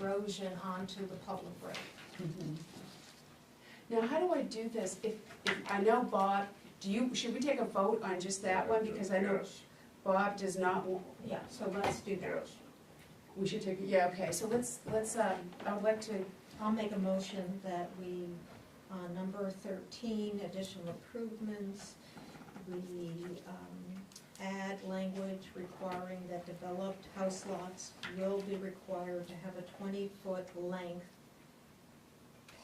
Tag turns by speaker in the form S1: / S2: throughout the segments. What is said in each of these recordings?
S1: inclusion onto the public road.
S2: Now, how do I do this? If, if, I know Bob, do you, should we take a vote on just that one? Because I know
S3: Yes,
S2: Bob does not want,
S1: Yeah,
S2: so let's do that.
S3: yes.
S2: We should take, yeah, okay, so let's, let's, um, I'd like to,
S1: I'll make a motion that we, on number thirteen, additional improvements, we um, add language requiring that developed house lots will be required to have a twenty-foot length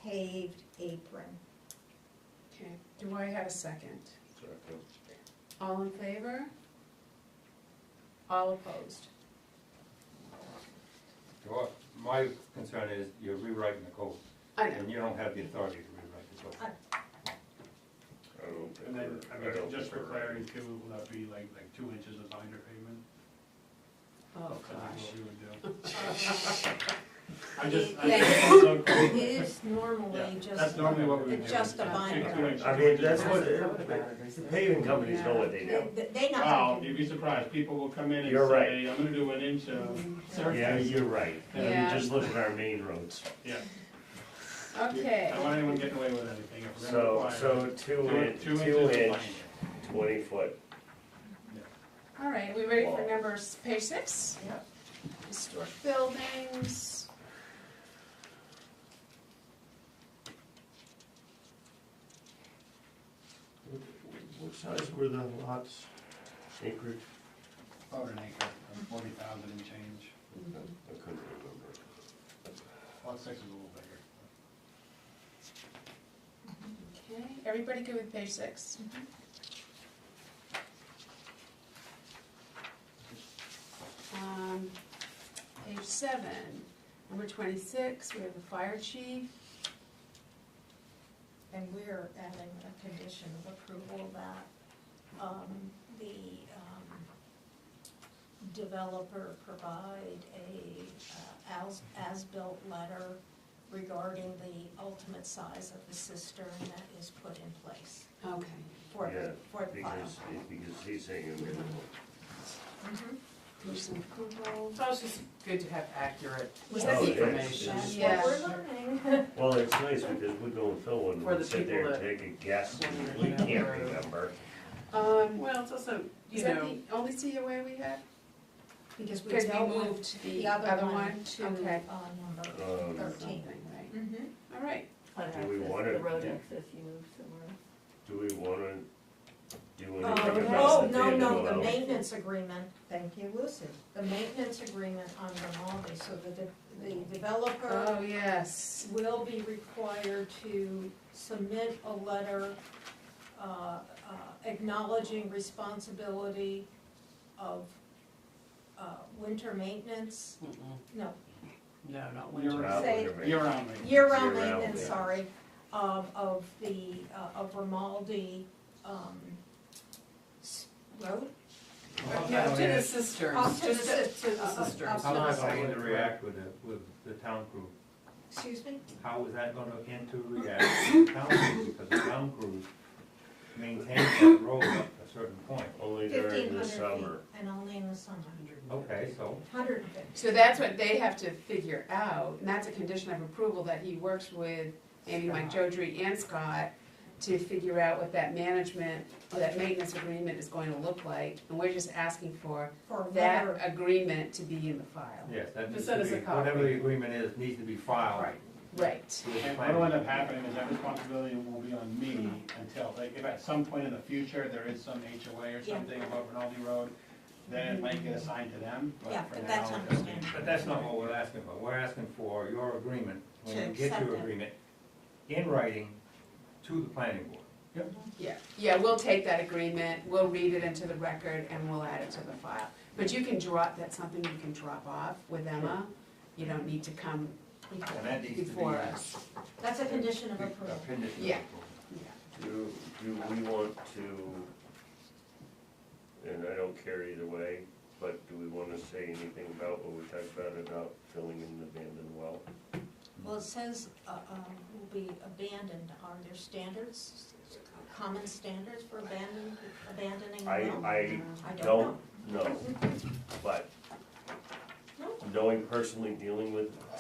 S1: paved apron.
S2: okay, do I have a second?
S3: Second.
S2: All in favor? All opposed?
S4: Well, my concern is you're rewriting the code,
S2: I know,
S4: and you don't have the authority to rewrite the code.
S3: I don't think
S5: And then, I
S3: we're, I
S5: mean,
S3: don't
S5: just
S3: think
S5: for
S3: we're ready.
S5: clarity too, will that be like, like two inches of binder pavement?
S2: oh
S5: That's
S2: gosh.
S5: what we would do. I just, I
S1: Yeah.
S5: just. it's so
S1: It
S5: cool.
S1: is normally
S5: Yeah,
S1: just.
S5: That's normally what we would do.
S1: It's just a
S5: Two-
S1: binder.
S5: two inches.
S3: I mean, that's what, the
S6: The
S3: paving companies know what they do.
S1: They- They
S5: Wow,
S1: not.
S5: you'd be surprised, people will come in and
S3: You're right.
S5: say, I'm gonna do an inch of
S3: Yeah,
S5: surface.
S3: you're right.
S2: Yeah.
S3: I mean, just look at our main roads.
S5: Yeah. I
S2: Okay,
S5: don't want anyone getting away with anything if we're gonna
S3: So,
S5: require.
S3: so two
S5: it.
S3: inch,
S5: Two
S3: two
S5: inches of
S3: inch,
S5: binder.
S3: twenty foot.
S2: all right, we ready for number, s- page six?
S5: Yeah.
S2: Historic buildings.
S6: What size were the lots?
S3: Acreage?
S5: About an acre, forty thousand and change,
S3: I couldn't remember.
S5: lot six is a little bigger.
S2: Okay, everybody good with page six? Um, Page seven, number twenty-six, we have the fire chief.
S1: And we're adding a condition of approval that um, the um, developer provide a uh, as- as-built letter regarding the ultimate size of the cistern that is put in place
S2: Okay.
S1: for
S3: Yeah,
S1: the, for the file.
S3: Because, because he's saying a minimum.
S1: Mhm.
S2: Condition of approval.
S6: So it's just good to have accurate
S1: Was
S3: Oh,
S1: that-
S3: yeah.
S6: information.
S1: That's
S2: Yeah.
S1: what we're learning.
S3: Well, it's nice because we go and fill one,
S6: For
S3: and
S6: the
S3: sit there and take
S6: people
S3: a guess, and we
S6: wondering
S3: can't
S6: about-
S3: remember.
S2: Um,
S6: Well, it's also,
S2: is
S6: you
S2: that
S6: know,
S2: the only COA we had?
S1: Because we
S2: Because we
S1: dealt with
S2: moved
S1: the other one to uh,
S2: Okay.
S1: number
S3: Um,
S1: thirteen.
S2: Right.
S1: Mhm.
S2: All right,
S3: Do we want
S7: The road
S3: to,
S7: access you moved somewhere.
S3: do we want to do anything about the
S1: Oh, no, no, the
S3: Vanderbilt?
S1: maintenance agreement, thank you, Lucy, the maintenance agreement on Grimaldi, so that the, the developer
S2: oh, yes.
S1: will be required to submit a letter uh, uh, acknowledging responsibility of uh, winter maintenance, no,
S6: no, not
S5: You're
S6: winter.
S3: About
S5: around,
S1: Say-
S3: Vanderbilt.
S5: you're around me.
S1: year-round
S3: Year-round
S1: maintenance,
S3: maintenance.
S1: sorry, um, of the, uh, of Grimaldi, um, s- road?
S6: Yeah, to the sisters,
S1: Up to the
S6: just to
S1: sis-
S6: to the
S1: up- up-
S6: sisters.
S1: up
S4: How am I going
S6: Right.
S4: to react with the, with the town crew?
S1: Excuse me?
S4: How is that gonna end to react with the town crew, because the town crew maintains that road up to a certain point.
S3: Only during
S1: Fifteen
S3: the
S1: hundred feet,
S3: summer.
S1: and only in the summer.
S4: Okay, so,
S1: Hundred and fifty.
S2: So that's what they have to figure out, and that's a condition of approval that he works with Amy, Mike Jodry, and Scott to figure out what that management, or that maintenance agreement is going to look like, and we're just asking for
S1: for a
S2: that
S1: letter.
S2: agreement to be in the file.
S4: yes, that needs
S6: Just send
S4: to
S6: us
S4: be,
S6: a copy.
S4: whatever the agreement is, needs to be filed.
S6: Right.
S2: Right,
S4: with the
S5: And
S4: planning.
S5: what'll end up happening is that responsibility will be on me until, like, if at some point in the future, there is some HOA or
S1: Yeah.
S5: something above Rinaldi Road, then it might get assigned to them,
S1: Yeah,
S5: but for
S1: but that's
S5: now, it'll be.
S1: understandable.
S4: But that's not what we're asking for, we're asking for your agreement, when
S1: To
S4: you get
S1: accept
S4: your
S1: it.
S4: agreement, in writing, to the planning board.
S2: yeah, yeah, we'll take that agreement, we'll read it into the record, and we'll add it to the file. But you can drop, that's something you can drop off with Emma, you don't need to come
S4: And that needs to be.
S2: before us.
S1: That's a condition of approval.
S4: Appended to the
S2: Yeah.
S4: approval.
S3: Do, do we want to, and I don't care either way, but do we want to say anything about what we talked about, about filling in the abandoned well?
S1: Well, it says, uh, um, will be abandoned, are there standards, common standards for abandon, abandoning
S3: I,
S1: a well?
S3: I
S1: I don't know.
S3: don't know, but
S1: No.
S3: knowing personally dealing with